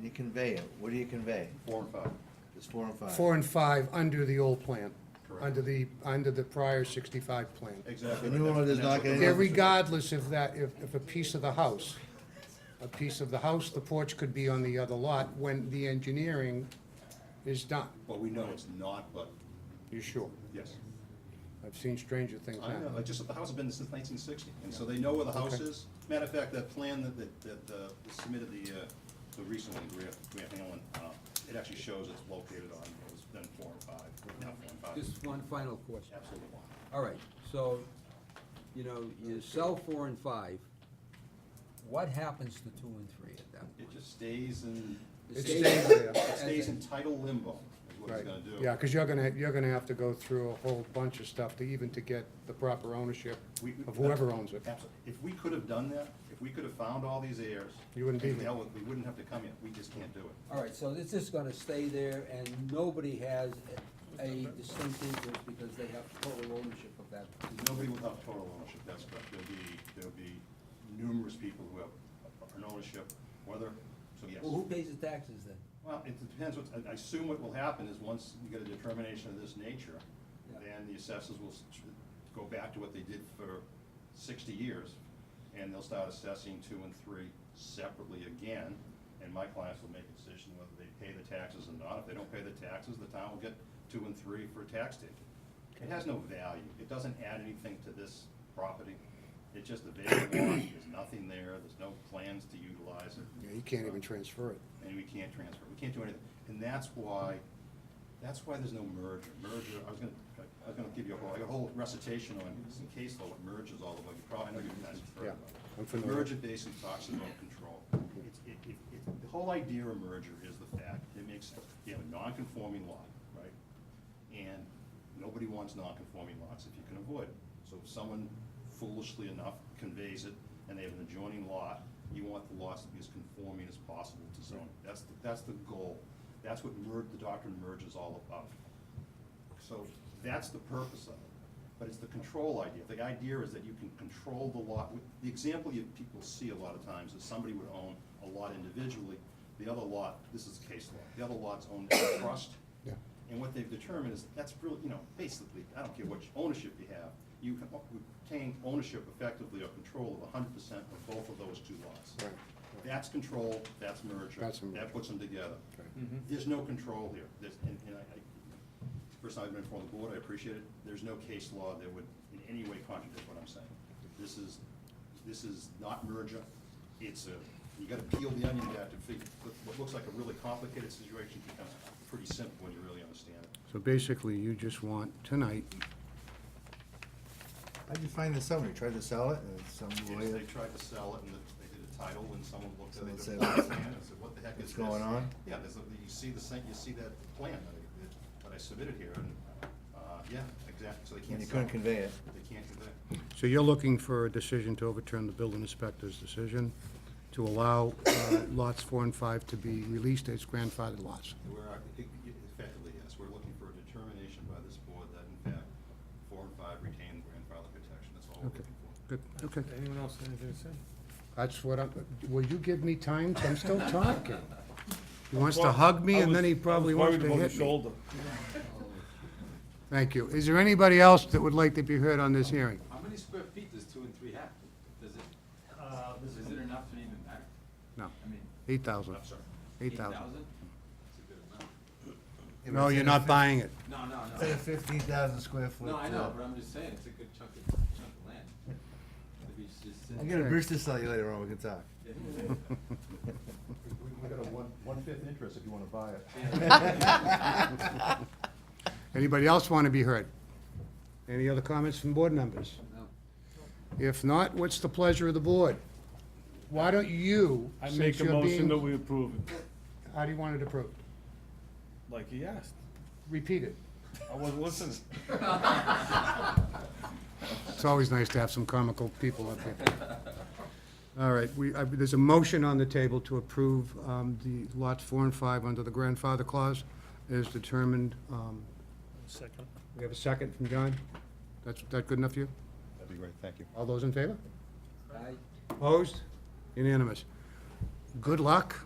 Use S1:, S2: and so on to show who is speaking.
S1: you convey it, what do you convey?
S2: Four and five.
S1: It's four and five.
S3: Four and five under the old plan,
S2: Correct.
S3: under the, under the prior sixty-five plan.
S2: Exactly.
S1: The new one does not get any-
S3: Yeah, Regardless of that, if, if a piece of the house, a piece of the house, the porch could be on the other lot when the engineering is done.
S2: Well, we know it's not, but,
S3: You sure?
S2: yes.
S3: I've seen stranger things
S2: I know,
S3: happen.
S2: like, just that the house has been there since nineteen sixty, and so they know where the house
S3: Okay.
S2: is. Matter of fact, that plan that, that, that uh, was submitted the, uh, the recent one, Grant, Grant Hanlon, uh, it actually shows it's located on, it was then four and five, now four and five.
S4: Just one final question.
S2: Absolutely one.
S4: All right, so, you know, you sell four and five, what happens to two and three at that
S2: It
S4: point?
S2: just stays in,
S4: It
S2: it
S4: stays
S2: stays,
S3: there.
S2: it stays in title limbo, is what
S3: Right.
S2: it's gonna do.
S3: Yeah, because you're gonna, you're gonna have to go through a whole bunch of stuff to even to get the proper ownership
S2: We-
S3: of whoever owns it.
S2: Absolutely. If we could have done that, if we could have found all these heirs.
S3: You wouldn't be
S2: and
S3: here.
S2: dealt with- We wouldn't have to come here. We just can't do it.
S4: All right, so this is gonna stay there and nobody has a distinct interest because they have total ownership of that.
S2: There's nobody without total ownership, that's correct. There'll be, there'll be numerous people who have an ownership, whether, so yes.
S4: Well, who pays the taxes then?
S2: Well, it depends, what- I- I assume what will happen is once you get a determination of this nature,
S4: Yeah.
S2: then the assessors will s- go back to what they did for sixty years, and they'll start assessing two and three separately again, and my clients will make a decision whether they pay the taxes or not. If they don't pay the taxes, the town will get two and three for a tax ticket. It has no value, it doesn't add anything to this property, it's just a vacant lot, there's nothing there, there's no plans to utilize it Uh,
S3: Yeah, You can't even transfer it.
S2: and we can't transfer, we can't do anything. And that's why, that's why there's no merger. Merger, I was gonna, I was gonna give you a whole, I got a whole recitation on some case law, what mergers all about, you probably, I know you've guys have heard
S3: Yeah,
S2: about it.
S3: I'm familiar.
S2: Merger basically talks about control. It's, it, it, it, the whole idea of merger is the fact, it makes, you have a non-conforming lot, right? And nobody wants non-conforming lots if you can avoid it. So if someone foolishly enough conveys it and they have an adjoining lot, you want the lots to be as conforming as possible to zoning. That's, the- that's the goal. That's what mer, the doctrine of merger is all about. So that's the purpose of it, but it's the control idea. The idea is that you can control the lot. The example you, people see a lot of times is somebody would own a lot individually, the other lot, this is case law, the other lot's owned by a trust.
S3: Yeah.
S2: And what they've determined is, that's really, you know, basically, I don't care what ownership you have, you can obtain ownership effectively or control of hundred percent of both of those two lots.
S3: Right, right.
S2: That's control, that's merger.
S3: That's a merger.
S2: That puts them together.
S3: Right.
S2: There's no control here. There's, and, and I, I, first time I've been before the board, I appreciate it. There's no case law that would in any way contradict what I'm saying. This is, this is not merger. It's a, you gotta peel the onion back to figure, what, what looks like a really complicated situation becomes pretty simple when you really understand it.
S3: So basically, you just want tonight,
S1: How'd you find this out? When You tried to sell it, and some
S2: Yes,
S1: lawyer,
S2: They tried to sell it and the- they did a title and someone looked at
S1: Someone
S2: it. they
S1: said,
S2: looked at the plan and said, what the heck is
S1: "What's
S2: this?
S1: going on?"
S2: Yeah, there's, a- you see the, sa- you see that plan that I, that- that I submitted here and, uh, yeah, exactly, so they
S1: and
S2: can't
S1: you
S2: sell.
S1: couldn't convey it.
S2: They can't do that.
S3: so you're looking for a decision to overturn the building inspector's decision to allow uh, lots four and five to be released as grandfathered lots.
S2: We're, uh, e- e- effectively, yes, we're looking for a determination by this board that in fact, four and five retain grandfather protection, that's all we're
S3: Okay.
S2: looking for.
S3: Good, okay.
S5: Anyone else have anything to say?
S3: That's what I'm, will you give me time? I'm still talking. He wants to hug me, and then he probably wants to hit me. Thank you. Is there anybody else that would like to be heard on this hearing?
S6: How many square feet does two and three have? Does it, is it enough to even matter?
S3: No,
S6: I mean,
S3: eight thousand.
S2: I'm sorry.
S3: Eight
S6: eight
S3: thousand.
S6: thousand? It's a good amount.
S3: No, you're not buying it.
S6: No, no,
S1: It's a
S6: no.
S1: fifteen thousand square foot.
S6: No, I
S1: uh,
S6: know, but I'm just saying, it's a good chunk of, chunk of land. If it's just
S1: I'm
S6: sitting-
S1: gonna Bruce this out you later on, we can talk.
S6: Yeah.
S2: We, we got a one, one-fifth interest if you wanna buy it.
S3: Anybody else want to be heard? Any other comments from board members?
S6: No.
S3: If not, what's the pleasure of the board? Why don't you,
S5: I
S3: since
S5: make a
S3: you're
S5: motion that
S3: being,
S5: we approve it,
S3: how do you want it approved?
S5: like he asked.
S3: Repeat it.
S5: I wasn't listening.
S3: It's always nice to have some comical people up here. All right, we, I- there's a motion on the table to approve um, the lots four and five under the grandfather clause as determined. um,
S5: Second.
S3: We have a second from John? That's, that good enough for you?
S2: That'd be great, thank you.
S3: All those in favor?
S6: Aye.
S3: Opposed? Unanimous. Good luck.